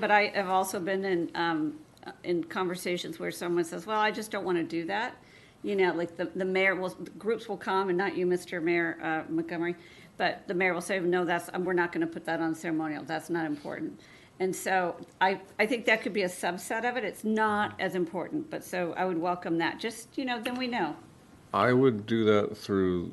But I have also been in, um, uh, in conversations where someone says, well, I just don't want to do that. You know, like the, the mayor will, the groups will come and not you, Mr. Mayor, uh, Montgomery. But the mayor will say, no, that's, um, we're not going to put that on ceremonial. That's not important. And so I, I think that could be a subset of it. It's not as important, but so I would welcome that. Just, you know, then we know. I would do that through,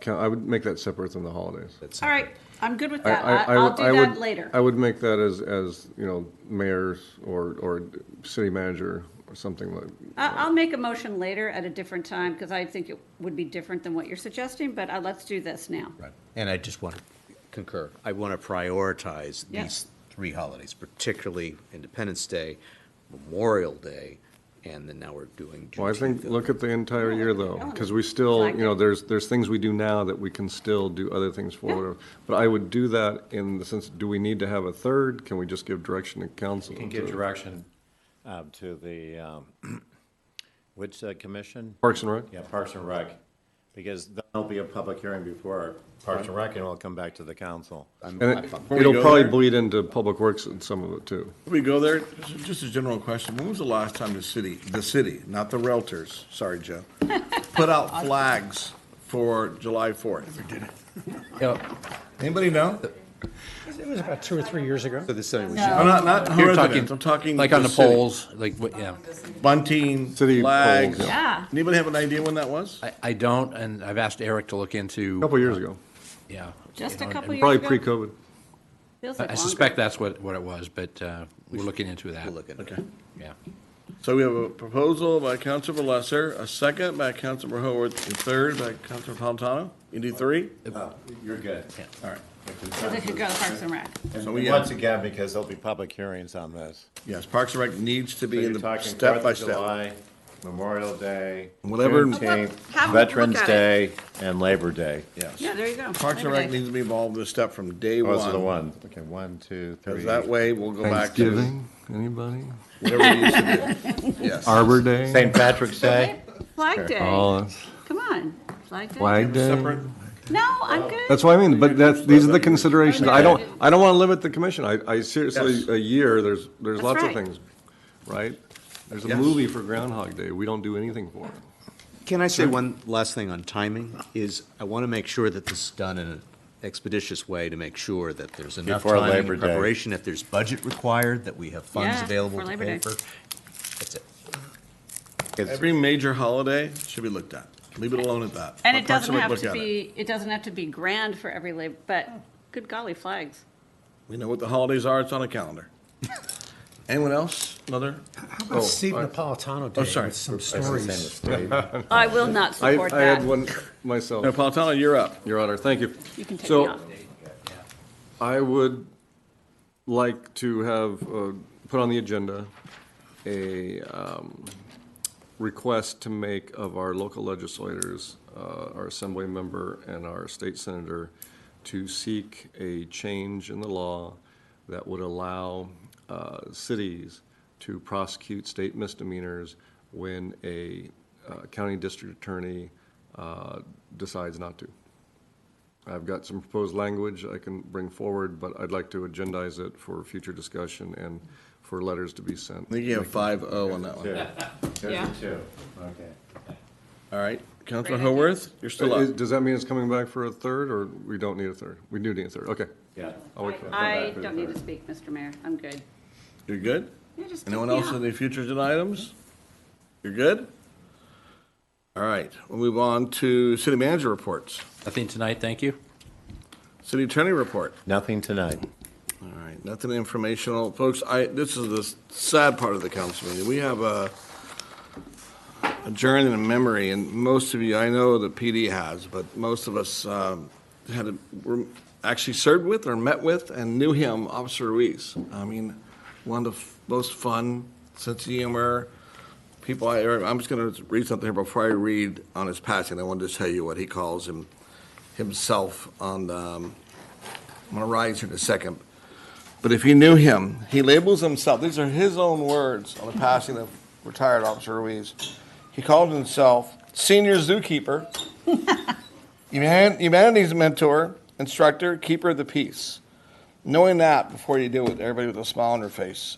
ca- I would make that separate than the holidays. All right, I'm good with I- that. I- I- I I'll would- do I that would- later. I would make that as, as, you know, mayor's or, or city manager or something like, I- I'll make a motion later at a different time because I think it would be different than what you're suggesting, but uh, let's do this now. Right. And I just want to concur. I want to prioritize Yeah. these three holidays, particularly Independence Day, Memorial Day, and then now we're doing well, I think, Juneteenth. look at the entire year though, because we still, Like you know, it. there's, there's things we do now that we can still do other things for. whatever. But I would do that in the sense, do we need to have a third? Can we just give direction to council? You can give to- direction um, to the, um, which uh, commission? Parks and Rec? Yeah, Parks and Rec, because there'll be a public hearing before Parks and Rec, and it'll come back to the council. And it- Before we it'll go probably there- bleed into Public Works and some of it too. Before We go there, just- just a general question. When was the last time the city, the city, not the Realtors, sorry, Joe, put out flags for July 4th? Anybody know? It was about two or three years ago. So this is, we No, should, Not, not You're residents, I'm talking. Like on the city. polls, like, what- yeah. Bunting, City polls, flags. yeah. Yeah. Anybody have an idea when that was? I, I don't, and I've asked Eric to look into. A Couple years ago, Yeah. Just You a know, couple and years probably ago. pre-COVID. Feels I like I longer. suspect that's what, what it was, but, uh, we're looking into that. we'll look at it. Okay. Yeah. So we have a proposal by Councilor Lesser, a second by Councilor Horwath, and third by Councilor Fontano. You do three? You're good. oh, All right. So they could go to Parks and Rec. And So we, once uh, again, because there'll be public hearings on this. Yes, Parks and Rec needs to So be in you're the talking step by Fourth of step. July, Memorial Day, Whatever- Juneteenth, Have a look Veterans at it. Day, and Labor Day. Yes. Yeah, there you go. Parks and Rec needs to be involved in this step from day one. Oh, Those are the ones. Okay, one, two, three. 'Cause that way, we'll go back to Thanksgiving, anybody? whatever we used to do. Yes. Arbor Day? St. Patrick's Day. Flag Day. Oh, that's- Come on. Flag Day. Flag Day? No, I'm good. That's what I mean, but that's, these are the considerations. I don't, I don't want to limit the commission. I, I seriously, Yes. a year, there's, there's That's lots of right. things, right? There's a Yes. movie for Groundhog Day. We don't do anything for it. Can I say one last thing on timing? Is I want to make sure that this is done in an expeditious way to make sure that there's enough Before time Labor and Day. preparation, if there's budget required, that we have funds Yeah, available for to Labor Day. pay for. That's it. Every major holiday should be looked at. Leave it alone at that. And Let it Parks doesn't Rec have look to at it. be, it doesn't have to be grand for every labor, but good golly, flags. We know what the holidays are. It's on a calendar. Anyone else? Another? How Oh, about Steve Napolitano Day sorry. with some stories? I will not I, support I had that. one myself. Napolitano, you're up. Your Honor, thank you. You can take So, me off. I would like to have, uh, put on the agenda a um, request to make of our local legislators, uh, our assembly member and our state senator, to seek a change in the law that would allow uh, cities to prosecute state misdemeanors when a uh, county district attorney uh, decides not to. I've got some proposed language I can bring forward, but I'd like to agendize it for future discussion and for letters to be sent. I think you have five oh on that one. Two. Yeah. There's a two. Okay. All right. Councilor Great idea. Haworth, you're still Uh, Is- up. Does that mean it's coming back for a third, or we don't need a third? We do need a third, okay. Yeah. I'll wait for that. I don't need to speak, Mr. Mayor. I'm good. You're good? You just Anyone take me else off. on the future agenda items? You're good? All right. We'll move on to city manager reports, Nothing tonight, thank you. city attorney report. Nothing tonight. All right, nothing informational. Folks, I, this is the sad part of the council meeting. We have a adjourned in memory, and most of you, I know the PD has, but most of us um, had, a- were actually served with or met with and knew him, Officer Ruiz. I mean, one of the most fun, sense of humor, people I, er, I'm just going to read something here before I read on his passing. I wanted to tell you what he calls him, himself on, um, I'm going to rise here in a second. But if you knew him, he labels himself, these are his own words on the passing of retired Officer Ruiz. He called himself senior zookeeper, human- humanities mentor, instructor, keeper of the peace. knowing that before you do it, everybody with a smile on their face